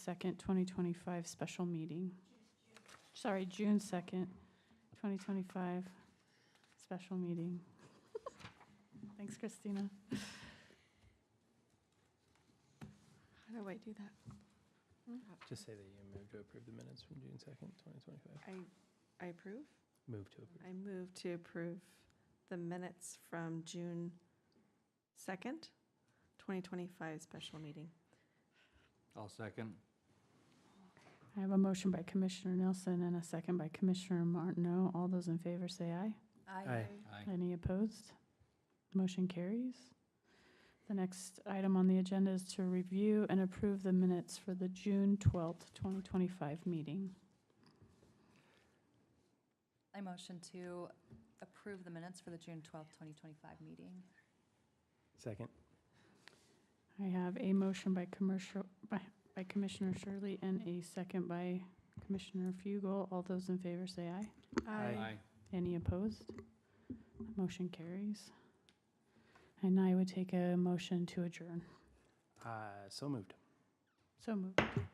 second, twenty twenty-five special meeting. Sorry, June second, twenty twenty-five special meeting. Thanks, Christina. How do I do that? Just say that you move to approve the minutes from June 2nd, 2025. I, I approve. Move to approve. I move to approve the minutes from June 2nd, 2025 special meeting. I'll second. I have a motion by Commissioner Nelson and a second by Commissioner Martineau. All those in favor say aye. Aye. Aye. Any opposed? Motion carries. The next item on the agenda is to review and approve the minutes for the June twelfth, twenty twenty-five meeting. I motion to approve the minutes for the June twelfth, 2025 meeting. Second. I have a motion by commercial, by, by Commissioner Shirley and a second by Commissioner Fugel. All those in favor say aye. Aye. Any opposed? Motion carries. And I would take a motion to adjourn. Uh, So moved. So moved.